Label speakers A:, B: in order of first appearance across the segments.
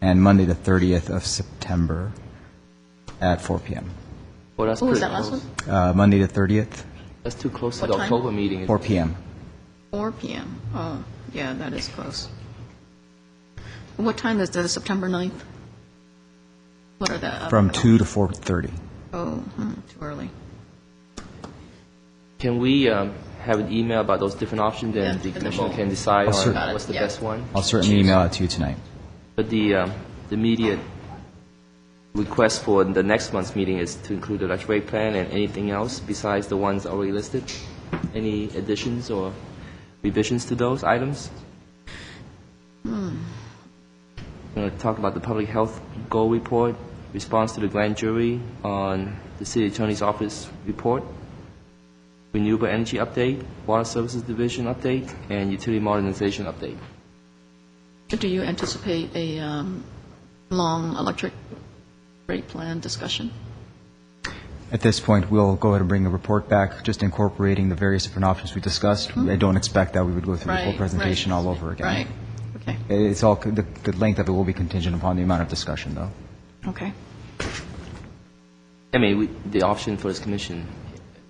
A: and Monday, the 30th of September at 4 PM.
B: Well, that's
C: What was
B: pretty
C: that last
B: close.
C: one?
A: Uh, Monday, the 30th,
B: That's too close to
C: What
B: the
C: time?
B: October meeting.
A: 4 PM.
C: 4 PM. Oh, yeah, that is close. What time is the September 9th? What are the? uh,
A: From 2 to 4:30.
C: Oh, hmm, too early.
B: Can we um, have an email about those different options, and
C: Yeah,
B: the
C: and then
B: commission
C: we'll-
B: can decide
A: I'll
B: on
A: cer-
B: what's the
C: Yeah.
B: best one?
A: I'll certainly email it to you tonight.
B: But the, um, the immediate request for the next month's meeting is to include the Dutch rate plan and anything else besides the ones already listed? Any additions or revisions to those items? We're going to talk about the public health goal report, response to the grand jury on the city attorney's office report, renewable energy update, water services division update, and utility modernization update.
C: Do you anticipate a um, long electric rate plan discussion?
A: At this point, we'll go ahead and bring a report back, just incorporating the various different options we discussed. I don't expect that we would go through the
C: Hmm. Right.
A: whole presentation
C: right.
A: all over again.
C: Right, okay,
A: It's all, the the length of it will be contingent upon the amount of discussion, though.
C: okay.
B: I mean, we- the option for this commission,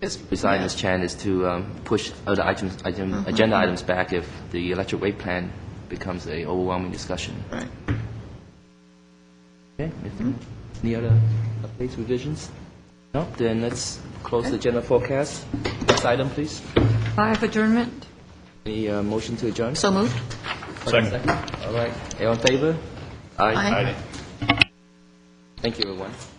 C: It's-
B: besides
C: yeah. Mm-hmm.
B: Ms. Chan, is to um, push other items, item- agenda items back if the electric rate plan becomes a overwhelming discussion.
C: Right. Mm-hmm.
B: Okay? if- Any other updates, revisions? No? Then let's close the agenda forecast. Next item, please.
D: Five adjournment?
B: Any uh, motion to adjourn?
C: So moved?
B: Second. All right. All in favor?
C: Aye.
B: Thank you, everyone.